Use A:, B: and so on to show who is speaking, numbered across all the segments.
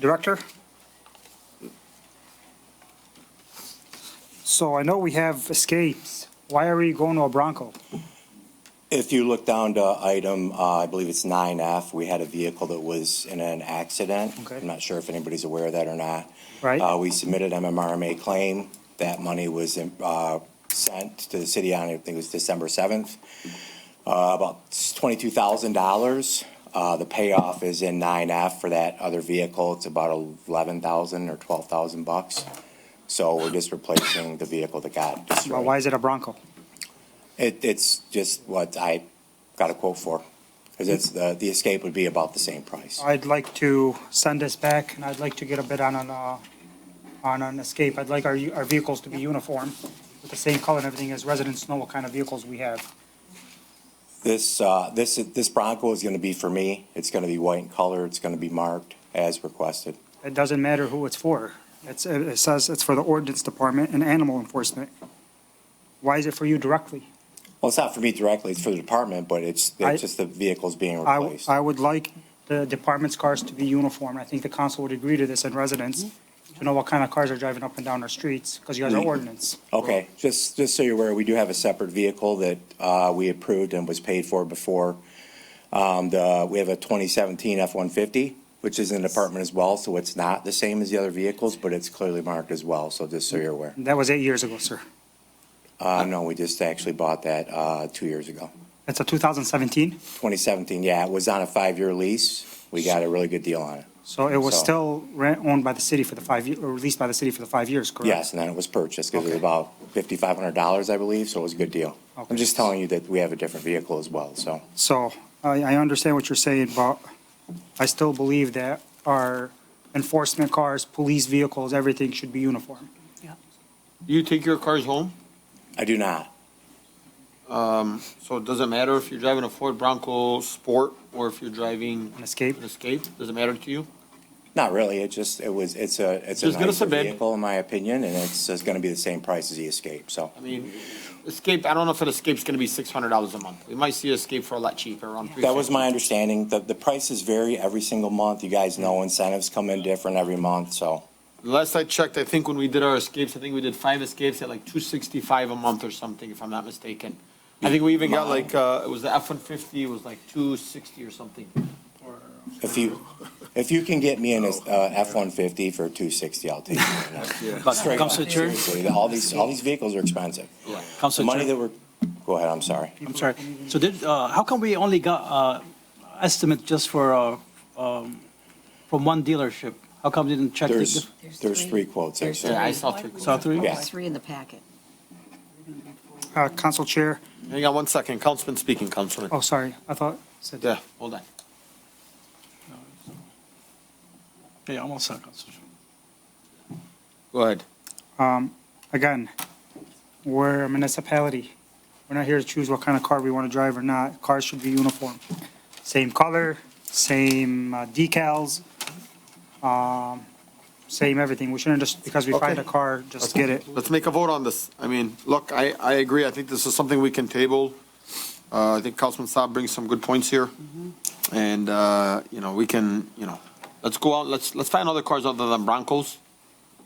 A: Director? So I know we have escapes. Why are we going to a Bronco?
B: If you look down to item, uh, I believe it's nine F, we had a vehicle that was in an accident.
A: Okay.
B: I'm not sure if anybody's aware of that or not.
A: Right.
B: Uh, We submitted MMRMA claim. That money was uh, sent to the city on, I think it was December 7th, uh, about $22,000. Uh, The payoff is in 9F for that other vehicle. It's about 11,000 or 12,000 bucks. So we're just replacing the vehicle that got
A: Well,
B: destroyed.
A: Why is it a Bronco?
B: It, it's just what I got a quote for, because it's, the, the escape would be about the same price.
A: I'd like to send this back, and I'd like to get a bid on an, uh, on an escape. I'd like our, our vehicles to be uniform, with the same color and everything, as residents know what kind of vehicles we have.
B: This, uh, this, this Bronco is gonna be for me, it's gonna be white in color, it's gonna be marked as requested.
A: It doesn't matter who it's for. It's, it says it's for the ordinance department and animal enforcement. Why is it for you directly?
B: Well, it's not for me directly, it's for the department, but it's,
A: I-
B: it's just the vehicle's being
A: I,
B: replaced.
A: I would like the department's cars to be uniform. I think the council would agree to this and residents
B: Mm-hmm.
A: to know what kind of cars are driving up and down our streets because you guys are ordinance.
B: Okay, just, just so you're aware, we do have a separate vehicle that, uh, we approved and was paid for before. Um, the, we have a twenty seventeen F-150, which is in the department as well, so it's not the same as the other vehicles, but it's clearly marked as well, so just so you're aware.
A: That was eight years ago, sir.
B: Uh, no, we just actually bought that, uh, two years ago.
A: That's a 2017,
B: Twenty seventeen, yeah, it was on a five-year lease. We got a really good deal on it.
A: so it was
B: So-
A: still rent, owned by the city for the five, ye- or leased by the city for the five years, correct?
B: Yes, and then it was purchased because it was
A: Okay.
B: about fifty-five hundred dollars, I believe, so it was a good deal.
A: Okay.
B: I'm just telling you that we have a different vehicle as well, so.
A: So I, I understand what you're saying, but I still believe that our enforcement cars, police vehicles, everything should be uniform.
C: You take your cars home,
B: I do not.
C: so it doesn't matter if you're driving a Ford Bronco Sport or if you're driving
A: An escape?
C: an Escape, doesn't matter to you?
B: Not really. It just, it was, it's a, it's a
C: Just give us
B: nicer
C: a bid.
B: vehicle, in my opinion, and it's, it's gonna be the same price as the Escape, so.
C: I mean, Escape, I don't know if an Escape's gonna be six hundred dollars a month. We might see an Escape for a lot cheaper, around three fifty.
B: That was my understanding. The, the prices vary every single month. You guys know incentives come in different every month, so.
C: Last I checked, I think when we did our Escapes, I think we did five Escapes at like two sixty-five a month or something, if I'm not mistaken. I think we even got like, uh, it was the F one fifty, it was like two sixty or something.
B: If you, if you can get me an, uh, F-150 for two sixty, I'll take it. Straight up,
D: Councilor Chair?
B: seriously. All these, all these vehicles are expensive. The
D: Council
B: money
D: Chair,
B: that we're, go ahead, I'm sorry.
D: I'm sorry. So did, uh, how come we only got, uh, estimate just for, uh, um, from one dealership? How come we didn't check? the
B: There's,
D: diff-
B: there's three quotes,
E: There's
B: actually.
C: Yeah, I saw three.
D: Saw three?
B: Yeah.
E: There's three in the packet.
A: Uh, Council Chair,
C: Hang on one second, Councilman speaking, Councilman.
A: oh, sorry, I thought, said-
C: Yeah, hold on.
D: Yeah, almost saw Council Chair.
C: Go ahead.
A: again, we're a municipality. We're not here to choose what kind of car we want to drive or not. Cars should be uniform. Same color, same uh, decals, um, same everything. We shouldn't just, because we find a
C: Okay.
A: car, just get it.
C: Let's make a vote on this. I mean, look, I, I agree. I think this is something we can table. Uh, I think Councilman Saab brings some good points here. And, uh, you know, we can, you know, let's go out, let's, let's find other cars other than Broncos,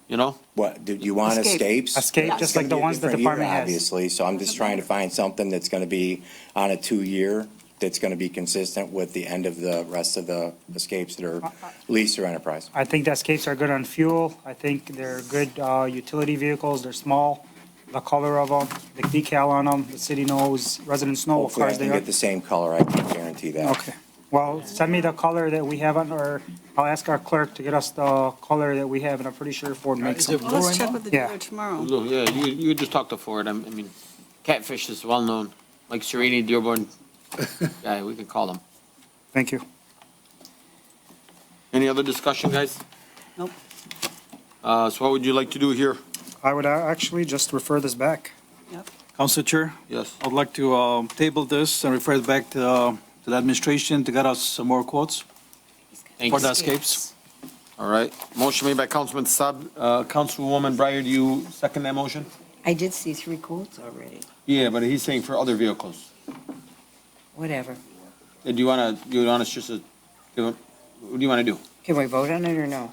C: you know?
B: What, do you want
E: Escape.
B: escapes?
A: Escape,
B: It's
A: just
B: gonna
A: like the
B: be a
A: ones the
B: different year,
A: department has.
B: Obviously, so I'm just trying to find something that's gonna be on a two-year, that's gonna be consistent with the end of the rest of the escapes that
A: Uh,
B: are lease or enterprise.
A: I think the Escapes are good on fuel. I think they're good uh, utility vehicles. They're small. The color of them, the decal on them, the city knows, residents know what
B: Hopefully, I
A: cars
B: can
A: they are.
B: get the same color, I can guarantee that.
A: Okay, well, send me the color that we have on, or I'll ask our clerk to get us the color that we have, and I'm pretty sure Ford makes them.
E: Well, let's check with the
A: Yeah.
E: dealer tomorrow.
C: Look, Yeah, you, you just talked to Ford. I'm- I mean, Catfish is well-known. Mike Serini, Dearborn, yeah, we can call him.
A: Thank you.
C: Any other discussion, guys?
E: Nope.
C: Uh, so what would you like to do here?
A: I would uh, actually just refer this back.
D: Council Chair,
C: Yes.
D: I'd like to, um, table this and refer it back to, uh, to the administration to get us some more quotes
C: Thank
D: for
C: you.
D: the escapes.
C: All right. Motion made by Councilman Saab. Uh, Councilwoman Breyer, do you second that motion?
E: I did see three quotes already.
C: Yeah, but he's saying for other vehicles. Uh,
E: Whatever.
C: Do you want to, do you want us just to, do, uh, what do you want to do?
E: Can we vote on it or no?